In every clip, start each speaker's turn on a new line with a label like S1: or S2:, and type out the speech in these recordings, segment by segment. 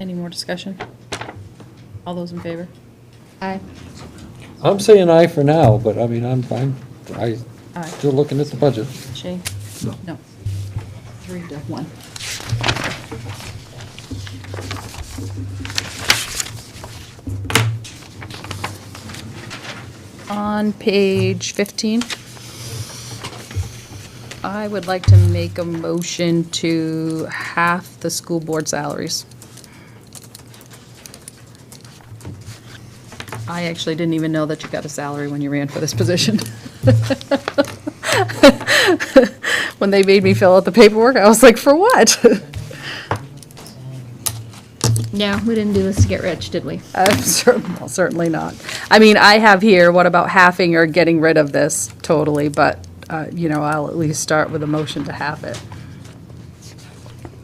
S1: Any more discussion? All those in favor?
S2: Aye.
S3: I'm saying aye for now, but I mean, I'm, I'm, I,
S1: Aye.
S3: still looking at the budget.
S1: Shay? No.
S2: Three to one. On page 15, I would like to make a motion to half the school board salaries. I actually didn't even know that you got a salary when you ran for this position. When they made me fill out the paperwork, I was like, for what?
S4: No, we didn't do this to get rich, did we?
S2: I'm Uh, cer- well, Certainly not. I mean, I have here, what about halving or getting rid of this totally, but, uh, you know, I'll at least start with a motion to halve it.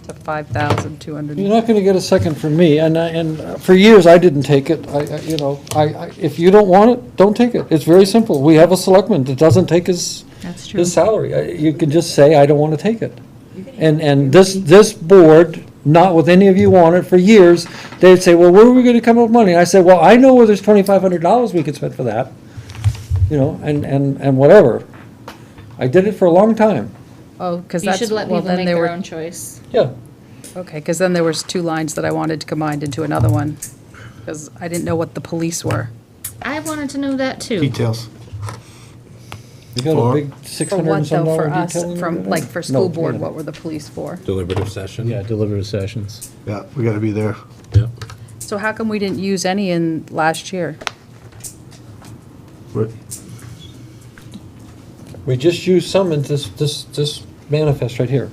S2: To 5,200.
S3: You're not gonna get a second from me, and I, and for years, I didn't take it, I, I- you know, I, I, if you don't want it, don't take it. It's very simple. We have a selectman that doesn't take his,
S4: That's true.
S3: his salary. I- You can just say, I don't wanna take it. And, and this, this board, not with any of you on it, for years, they'd say, well, where are we gonna come up with money? I said, well, I know where there's twenty-five hundred dollars we could spend for that, you know, and, and, and whatever. I did it for a long time,
S2: Oh, because
S4: You
S2: that's,
S4: should let
S2: well,
S4: people
S2: then
S4: make
S2: there
S4: their
S2: were,
S4: own choice.
S3: yeah.
S2: okay, because then there was two lines that I wanted combined into another one, because I didn't know what the police were.
S4: I wanted to know that too.
S5: Details.
S3: You got a
S5: For-
S3: big six
S2: For
S3: hundred and
S2: what
S3: some
S2: though,
S3: dollar
S2: for
S3: detailing?
S2: us, from,
S3: over
S2: like,
S3: there?
S2: for school
S3: No,
S2: board,
S3: yeah.
S2: what were the police for?
S6: Deliberative session?
S7: Yeah, deliberative sessions.
S5: Yeah, we gotta be there.
S6: Yep.
S2: So how come we didn't use any in last year?
S5: We're-
S3: We just used some in this, this, this manifest right here.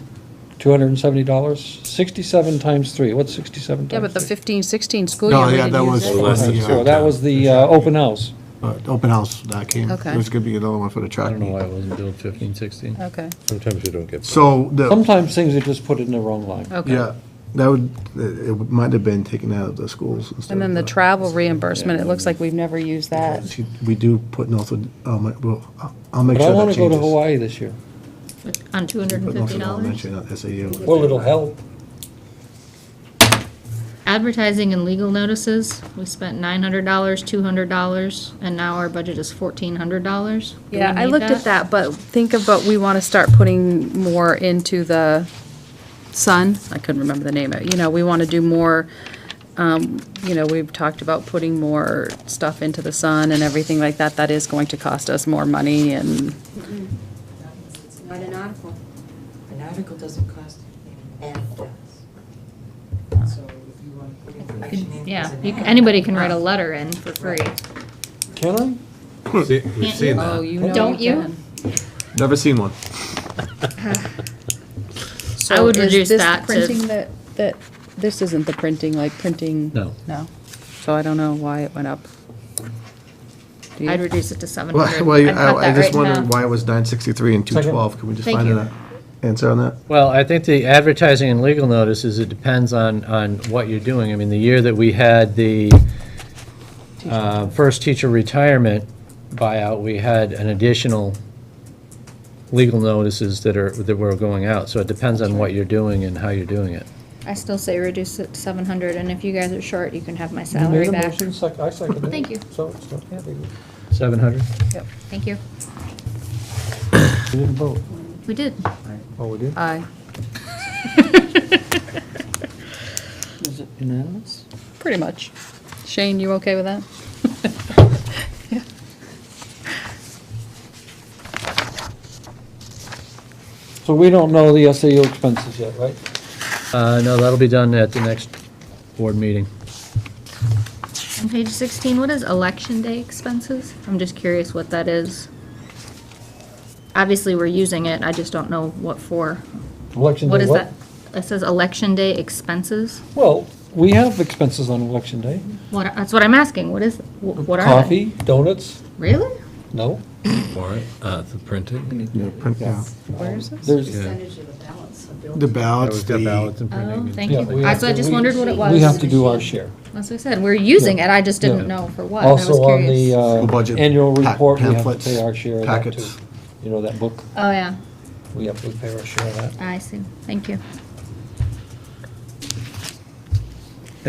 S3: Two hundred and seventy dollars, sixty-seven times three, what's sixty-seven times
S2: Yeah, but the
S3: three?
S2: 15, 16 school year,
S5: No,
S2: we
S5: yeah, that
S2: didn't
S5: was.
S2: use it.
S6: Well, that's
S5: uh,
S6: the-
S3: So that was the, uh, open house.
S5: uh, Open house that came.
S2: Okay.
S5: There's gonna be another one for the
S7: I
S5: track.
S7: don't know
S5: meet.
S7: why it wasn't billed 15, 16.
S2: Okay.
S6: Sometimes you don't get.
S5: So the,
S3: Sometimes things are just put in the wrong line.
S2: Okay.
S5: yeah, that would, it it might have been taken out of the schools instead.
S2: And then
S5: of
S2: the travel reimbursement, it looks like we've never used that.
S5: She- We do put Northwood, um, well, I'll- I'll make
S3: But I
S5: sure
S3: wanna
S5: that
S3: go
S5: changes.
S3: to Hawaii this year.
S4: On two hundred and
S5: But
S4: fifty
S5: Northwood
S4: dollars?
S5: Elementary, not SAU.
S3: Well, it'll help.
S4: Advertising and legal notices, we spent nine hundred dollars, two hundred dollars, and now our budget is fourteen hundred dollars.
S2: Yeah, I looked at that, but think about, we want to start putting more into the sun. I couldn't remember the name of it. You know, we want to do more, um, you know, we've talked about putting more stuff into the sun and everything like that. That is going to cost us more money and
S8: It's not an article. An article doesn't cost anything, So if you want to put information in.
S4: Yeah,
S8: as an
S4: you
S8: ad,
S4: can- anybody can write a letter in for free.
S3: Can I?
S6: We've seen- we've seen
S2: Oh,
S6: that.
S2: you know
S4: Don't you?
S2: can.
S5: Never seen one.
S2: So
S4: would
S2: is
S4: reduce
S2: this the
S4: that to-
S2: Printing that, that, this isn't the printing, like printing?
S7: No.
S2: No. So I don't know why it went up. Do you-
S4: I'd reduce it to seven
S5: Well,
S4: hundred.
S5: well, I I just wondered why it was nine sixty-three and two
S3: Second.
S5: twelve. Can we just
S4: Thank
S5: find
S4: you.
S5: an answer on that?
S7: Well, I think the advertising and legal notices, it depends on, on what you're doing. I mean, the year that we had the uh, first teacher retirement buyout, we had an additional legal notices that are, that were going out. So it depends on what you're doing and how you're doing it.
S4: I still say reduce it to seven hundred, and if you guys are short, you can have my
S3: You made
S4: salary
S3: a
S4: back.
S3: motion, sec- I seconded it.
S4: Thank you.
S3: So, it's not that big.
S7: 700?
S4: Thank you.
S3: We didn't vote.
S4: We did.
S3: Oh, we did?
S2: Aye.
S3: Is it unanimous?
S2: Pretty much. Shane, you okay with that?
S3: So we don't know the SAU expenses yet, right?
S7: Uh, no, that'll be done at the next board meeting.
S4: On page sixteen, what is election day expenses? I'm just curious what that is. Obviously, we're using it, I just don't know what for.
S3: Election day,
S4: What is that? It says election day expenses.
S3: Well, we have expenses on election day.
S4: What, that's what I'm asking, what is, wh- what are they?
S3: Coffee, donuts,
S4: Really?
S3: no.
S6: Warrant, uh, the printing.
S5: Yeah, print- yeah.
S3: Um,
S2: Where is this?
S3: There's,
S8: Percentage of the balance of bill.
S5: The ballots,
S6: We've got
S5: the,
S6: ballots and
S4: Oh,
S6: printing.
S4: thank
S3: Yeah,
S4: you.
S3: we
S4: I,
S3: have
S4: so I
S3: to-
S4: just
S3: we-
S4: wondered what it was.
S3: we have to do our share.
S4: That's what I said, we're using it, I just didn't
S3: Yeah.
S4: know for what, and I was
S3: Also on the
S4: curious.
S3: uh,
S5: School budget
S3: annual
S5: pack-
S3: report, we have to
S5: pamphlets,
S3: pay our share of that too.
S5: packets.
S3: You know, that book,
S4: Oh, yeah,
S3: we have to pay our share of that.
S4: I see, thank you.